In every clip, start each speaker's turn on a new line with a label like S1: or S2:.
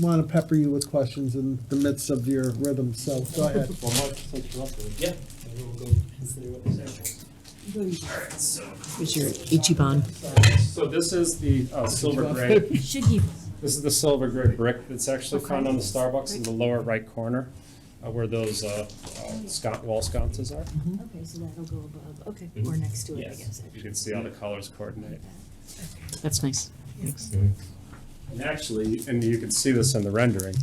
S1: want to pepper you with questions in the midst of your rhythm, so go ahead.
S2: Well, Mark, since you're up there.
S3: Yeah.
S2: Maybe we'll go consider what the sample is.
S4: Here's your Ichiban.
S3: So this is the uh, silver gray,
S4: Should Mm-hmm. you?
S3: this is the silver gray brick that's actually found on the Starbucks in the lower right corner uh, where those uh, uh, sconce, wall sconces are.
S4: Okay, so that'll go above, okay, or next to it, I guess.
S3: Mm-hmm. Yes, you can see how the colors coordinate.
S4: That's nice.
S3: Mm-hmm. And actually, and you can see this in the rendering,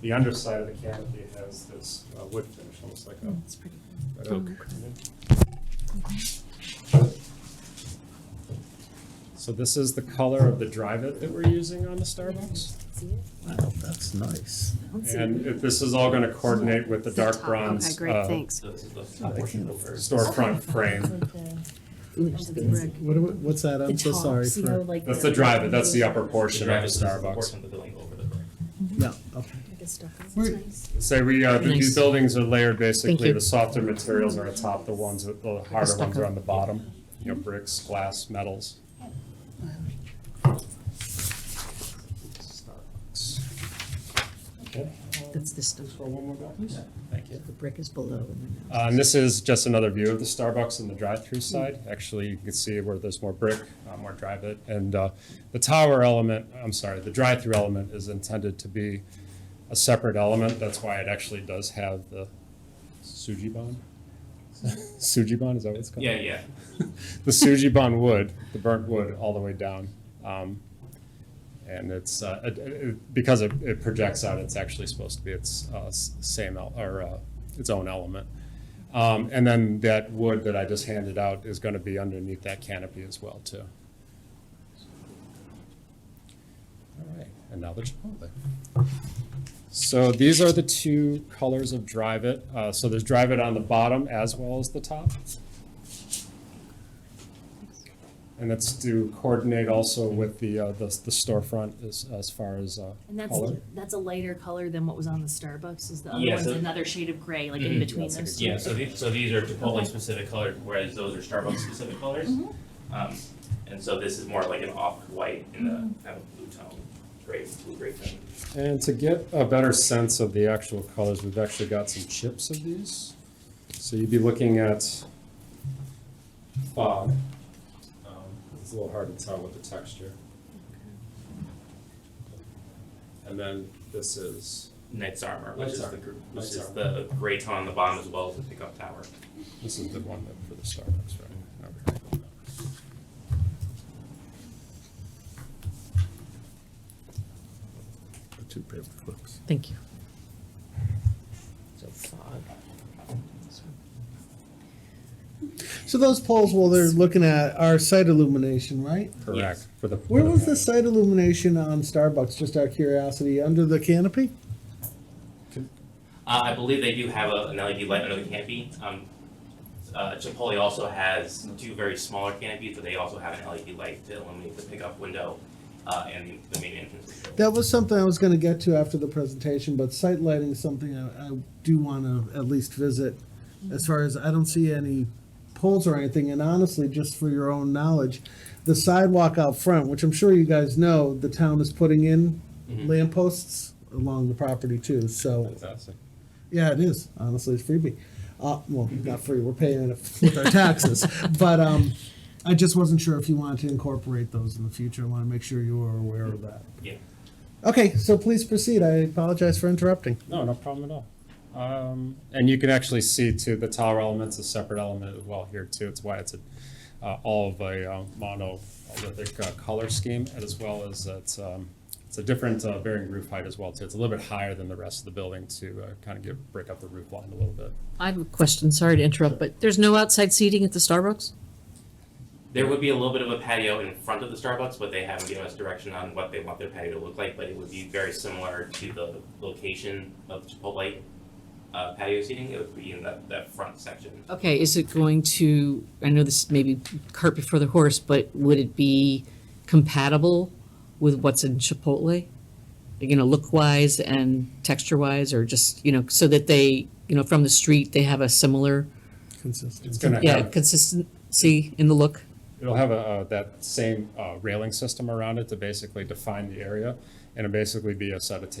S3: the underside of the canopy has this uh, wood finish, almost like a
S4: That's pretty.
S3: an oak. So this is the color of the drive-it that we're using on the Starbucks.
S4: See it?
S1: Wow, that's nice.
S4: I don't see it.
S3: And it- this is all gonna coordinate with the dark
S5: Okay,
S3: bronze
S5: great,
S3: uh,
S5: thanks.
S2: So this is the proportional first.
S3: storefront frame.
S4: Ooh, there's the brick.
S1: What, do- what's that? I'm so
S4: The top,
S1: sorry
S4: see how,
S1: for,
S4: like,
S3: That's the drive-it, that's the upper
S2: The
S3: portion of
S2: drive
S3: the
S2: is the
S3: Starbucks.
S2: portion of the building over the brick.
S1: yeah, okay.
S4: Like a stucco. It's
S1: Wait.
S4: nice.
S3: Say we, uh, these
S4: Nice.
S3: buildings are layered
S4: Thank
S3: basically,
S4: you.
S3: the softer materials are atop, the ones, that- the harder ones
S4: stucco.
S3: are on the bottom. You know, bricks, glass, metals. Starbucks. Okay.
S4: That's the stuff.
S3: Throw one more back? Thank you.
S4: The brick is below. and then-
S3: Uh, And this is just another view of the Starbucks and the drive-through side. Actually, you can see where there's more brick, uh, more drive-it. And uh, the tower element, I'm sorry, the drive-through element is intended to be a separate element. That's why it actually does have the Sujibon. Sujibon, is that what it's called?
S2: Yeah, yeah.
S3: The Sujibon wood, the burnt wood, all the way down. Um, And it's, uh, it- it- because it it projects out, it's actually supposed to be its uh, s- same, el- or uh, its own element. Um, And then that wood that I just handed out is going to be underneath that canopy as well, too. All right, and now the Chipotle. So these are the two colors of Drive It. Uh, So there's Drive It on the bottom as well as the top. And that's to coordinate also with the, uh, the the storefront as, as far as uh,
S5: And that's,
S3: color.
S5: that's a lighter color than what was on the Starbucks, is the other
S2: Yeah,
S5: one's
S2: so-
S5: another shade of gray, like
S2: Mhm.
S3: Mm-hmm.
S5: in between
S3: That's a
S5: those
S3: good-
S5: two?
S2: Yeah, so these, so these are Chipotle specific colors, whereas those are Starbucks specific colors.
S5: Mhm.
S2: Um, and so this is more like an off-white in the kind of blue tone, gray, blue gray tone.
S3: And to get a better sense of the actual colors, we've actually got some chips of these. So you'd be looking at fog. Um, It's a little hard to tell with the texture. And then this is,
S2: Knight's Armor, which
S3: Knight's
S2: is
S3: Armor.
S2: the, gr- which
S3: Knight's
S2: is
S3: Armor.
S2: the gray tone on the bottom as well as the pickup tower.
S3: this is the one that for the Starbucks, right? Okay.
S1: Two paper clips.
S4: Thank you.
S1: So those poles, well, they're looking at our site illumination, right?
S3: Correct. For the.
S1: Where was the site illumination on Starbucks, just out of curiosity, under the canopy?
S2: Uh, I believe they do have a, an LED light under the canopy. Um, uh, Chipotle also has two very smaller canopies, but they also have an LED light to illuminate the pickup window uh, and the main entrance. of the building.
S1: That was something I was gonna get to after the presentation, but site lighting is something I, I do wanna at least visit. As far as, I don't see any poles or anything, and honestly, just for your own knowledge, the sidewalk out front, which I'm sure you guys know, the town is putting in lampposts along the property too, so,
S3: Fantastic.
S1: yeah, it is, honestly, it's freebie. Uh, well, not free, we're paying it with our taxes, but, um, I just wasn't sure if you wanted to incorporate those in the future, I wanna make sure you are aware of that.
S2: Yeah.
S1: Okay, so please proceed. I apologize for interrupting.
S3: No, no problem at all. Um, and you can actually see too, the tower element's a separate element as well here too. It's why it's a, uh, all of a uh, monolithic uh, color scheme as well as it's, um, it's a different uh, varying roof height as well too. It's a little bit higher than the rest of the building to uh, kind of give, break up the roof line a little bit.
S4: I have a question, sorry to interrupt, but there's no outside seating at the Starbucks?
S2: There would be a little bit of a patio in front of the Starbucks, but they haven't given us direction on what they want their patio to look like. But it would be very similar to the location of Chipotle uh, patio seating. It would be in that, that front section.
S4: Okay, is it going to, I know this may be cart before the horse, but would it be compatible with what's in Chipotle? You know, look-wise and texture-wise, or just, you know, so that they, you know, from the street, they have a similar,
S3: It's
S1: Consistent.
S3: gonna
S4: yeah,
S3: have-
S4: consistency in the look?
S3: It'll have a, uh, that same uh, railing system around it to basically define the area. and it'd basically be a set of tables